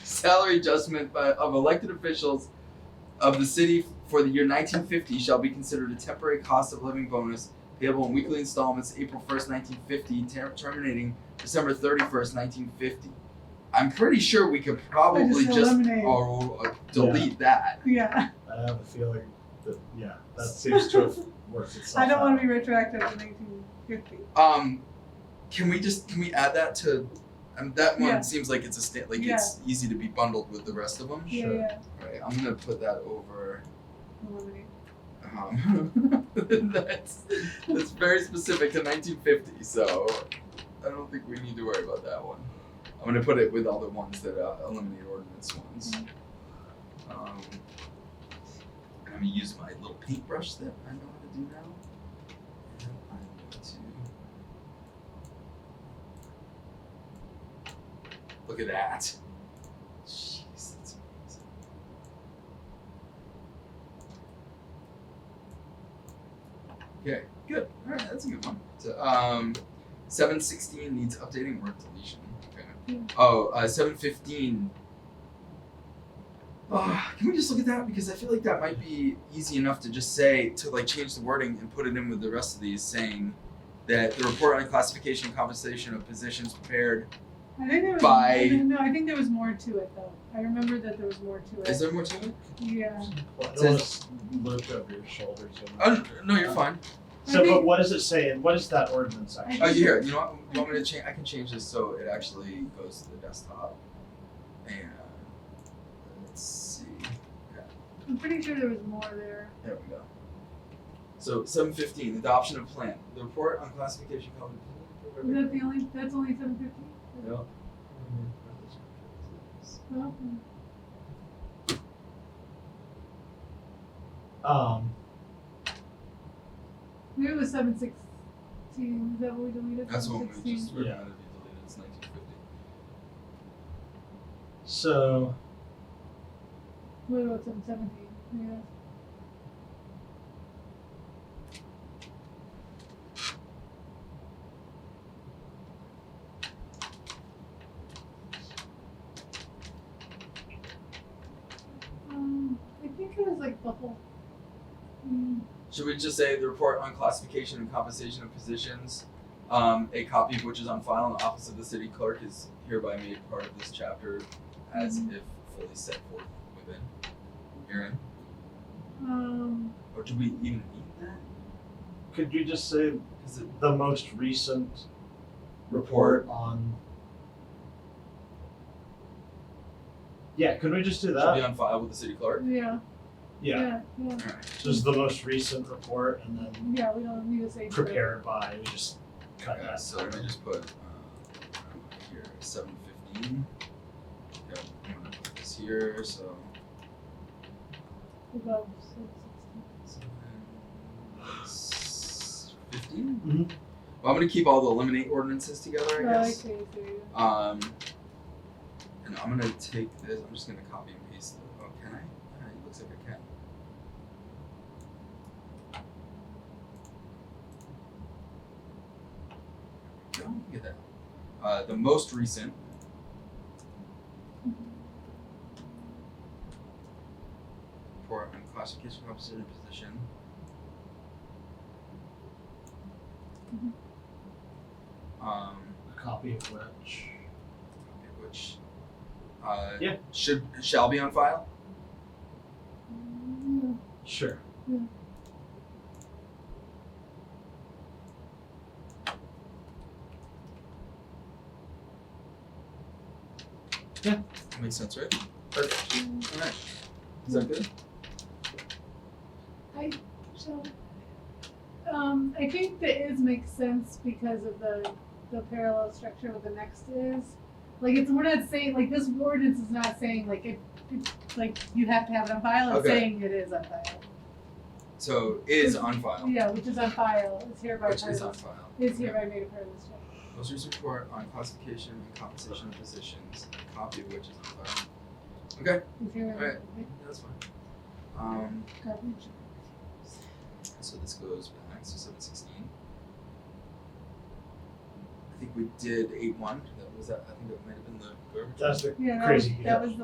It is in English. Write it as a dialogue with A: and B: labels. A: salary adjustment by, of elected officials of the city for the year 1950 shall be considered a temporary cost of living bonus payable in weekly installments April 1st, 1950, ter- terminating December 31st, 1950. I'm pretty sure we could probably
B: just
A: just,
B: eliminate.
A: oh, uh, delete that.
B: Yeah,
C: I have a feeling that, yeah, that seems to have worked itself
B: I
C: out.
B: don't want to be retroactive to 1950.
A: Um, can we just can we add that to? Um, that one
B: Yeah.
A: seems like it's a sta- like
B: Yeah.
A: it's easy to be bundled with the rest of them.
C: Sure.
B: Yeah, yeah.
A: Right, I'm gonna put that over.
B: Eliminate.
A: Um, that's that's very specific to 1950, so I don't think we need to worry about that one. I'm gonna put it with all the ones that uh, eliminate ordinance ones. Um, I'm gonna use my little paintbrush that I know how to do now. And I'm going to look at that. Jeez, that's amazing. Okay, good. All right, that's a good one. So, um, seven sixteen needs updating or deletion. Okay.
B: Hmm.
A: Oh, uh, seven fifteen. Ah, can we just look at that because I feel like that might be easy enough to just say to like change the wording and put it in with the rest of these, saying that the report on classification and compensation of positions prepared.
B: I think there was
A: By-
B: no, I think there was more to it though. I remember that there was more to it.
A: Is there more to it?
B: yeah.
C: Well,
A: Says-
C: it was looped over your shoulders. and-
A: Oh, no, you're fine.
C: So,
B: Maybe-
C: but what does it say, and what is that ordinance
A: Oh,
C: actually?
A: you here. You know what? You want me to change? I can change this so it actually goes to the desktop. And let's see.
B: I'm pretty sure there was more there.
A: There we go. So seven fifteen, adoption of plan. The report on classification called.
B: Is that the only? That's only 750.
A: No.
B: Well,
C: Um,
B: maybe it was 716. Is that what we deleted?
A: That's what we
B: 716?
A: just
C: Yeah.
A: recommended be deleted. It's nineteen fifty.
C: so,
B: What about 717? Yeah. Um, I think it was like the whole. Mm,
A: Should we just say the report on classification and compensation of positions, um, a copy of which is on file in the office of the city clerk is hereby made part of this chapter as
B: Mhm.
A: if fully set forth within. Aaron,
B: um,
A: or do we even need that?
C: could you just say
A: Is it
C: the most recent
A: report?
C: report on? Yeah, could we just do
A: Should be
C: that?
A: on file with the city clerk.
B: yeah,
C: Yeah,
B: yeah, yeah,
A: Alright.
C: just the most recent report, and then
B: yeah, we don't need to say. for it.
C: prepared by, we just cut
A: Okay,
C: that.
A: so let me just put uh, here seven fifteen. Yep, I'm gonna put this here. So
B: About 716.
A: fifteen.
C: Mhm.
A: Well, I'm gonna keep all the eliminate ordinances together, I
B: Oh, I
A: guess.
B: see, I see, yeah.
A: Um, and I'm gonna take this. I'm just gonna copy and paste it. Oh, can I? Uh, it looks like I can. There we go. Look at that. Uh, the most recent. Report on classification officer and position.
B: Mhm.
A: Um
C: A copy of which.
A: which uh,
C: Yeah.
A: should shall be on file.
B: Mm, yeah.
C: Sure.
A: Makes sense, right?
B: Mm.
A: All right. Is that good?
B: So, um, I think the is makes sense because of the, the parallel structure with the next is. Like it's, we're not saying, like this ordinance is not saying like it, it's like you have to have it on file, it's
A: Okay.
B: saying it is on file.
A: So is on file,
B: Yeah, which is on file, it's hereby
A: which
B: part
A: is on
B: of,
A: file.
B: Mm-hmm. is hereby made a part of this chapter.
A: Most recent report on classification and compensation of positions, a copy of which is on file.
B: It's hereby made a part of
A: That's fine. Um,
B: this chapter.
A: so this goes back to seven sixteen. I think we did eight one. That was that. I think that might have been the garbage.
C: That's the
B: Yeah, that was,
C: crazy.
B: that was the